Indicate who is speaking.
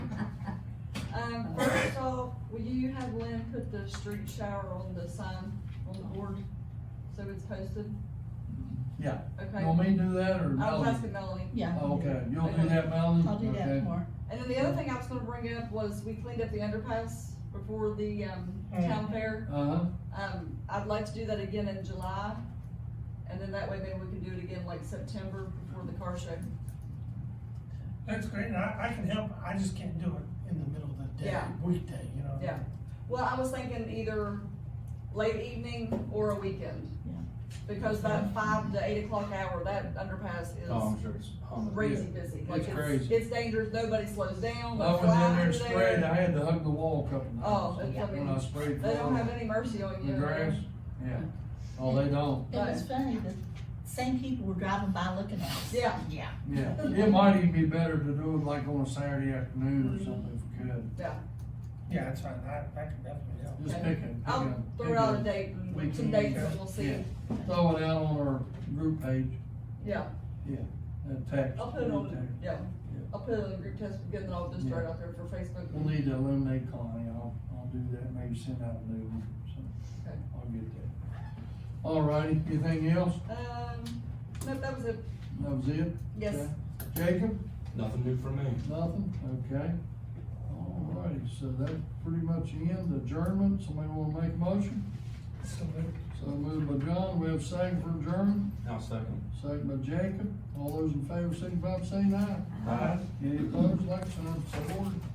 Speaker 1: Um, first off, will you have Lynn put the street shower on the sign, on the board, so it's posted?
Speaker 2: Yeah,
Speaker 1: Okay.
Speaker 2: you want me to do that
Speaker 1: I
Speaker 2: or
Speaker 1: was
Speaker 2: Melanie?
Speaker 1: asking Melanie.
Speaker 3: Yeah.
Speaker 2: Oh, Okay, you'll do that, Melanie?
Speaker 3: I'll do that
Speaker 2: Okay.
Speaker 3: tomorrow.
Speaker 1: And then the other thing I was gonna bring up was we cleaned up the underpass before the, um, town fair.
Speaker 2: Uh-huh,
Speaker 1: Um, I'd like to do that again in July, and then that way maybe we can do it again like September before the car show.
Speaker 4: That's great, and I, I can help, I just can't do it in the middle of the day,
Speaker 1: Yeah.
Speaker 4: weekday, you know?
Speaker 1: Yeah. Well, I was thinking either late evening or a weekend.
Speaker 3: Yeah.
Speaker 1: Because that five to eight o'clock hour, that underpass
Speaker 5: Oh,
Speaker 1: is
Speaker 5: I'm sure it's on the.
Speaker 1: crazy busy. Like
Speaker 2: It's crazy.
Speaker 1: It's dangerous, nobody slows down,
Speaker 2: I
Speaker 1: they
Speaker 2: was in
Speaker 1: fly
Speaker 2: there and
Speaker 1: under
Speaker 2: sprayed, I
Speaker 1: there.
Speaker 2: had to hug the wall a couple
Speaker 1: Oh,
Speaker 2: times
Speaker 1: that's- I
Speaker 2: when
Speaker 1: mean,
Speaker 2: I sprayed.
Speaker 1: They don't
Speaker 2: the-
Speaker 1: have any mercy on you.
Speaker 2: The grass, yeah, oh, they don't,
Speaker 3: It was funny, the same people were driving by looking at us.
Speaker 1: Yeah.
Speaker 3: Yeah.
Speaker 2: yeah, it might even be better to do it like on a Saturday afternoon or something if we could,
Speaker 4: Yeah, that's fine, I, I can definitely help.
Speaker 2: just
Speaker 1: Okay.
Speaker 2: pick it.
Speaker 1: I'll throw out a date, and some dates and we'll see.
Speaker 2: Yeah. Throw it out on our group page,
Speaker 1: Yeah,
Speaker 2: that text.
Speaker 1: I'll put it on, yeah,
Speaker 2: Yeah.
Speaker 1: I'll put it on the group test, get it all just right out there for Facebook.
Speaker 2: We'll need to eliminate Connie, I'll, I'll do that, maybe send out a new one, so,
Speaker 1: Okay.
Speaker 2: I'll get that. All righty, anything else?
Speaker 1: Um, no, that was it,
Speaker 2: That was it?
Speaker 1: yes.
Speaker 2: Okay. Jacob,
Speaker 5: Nothing new for me.
Speaker 2: nothing, okay. All righty, so that pretty much ends adjournment, somebody wanna make a motion?
Speaker 4: So, maybe-
Speaker 2: So moved by John, we have second for adjournment,
Speaker 5: I'll second.
Speaker 2: second by Jacob, all those in favor, signify by saying aye.
Speaker 5: Aye.
Speaker 2: Any opposed, like sign, so ordered.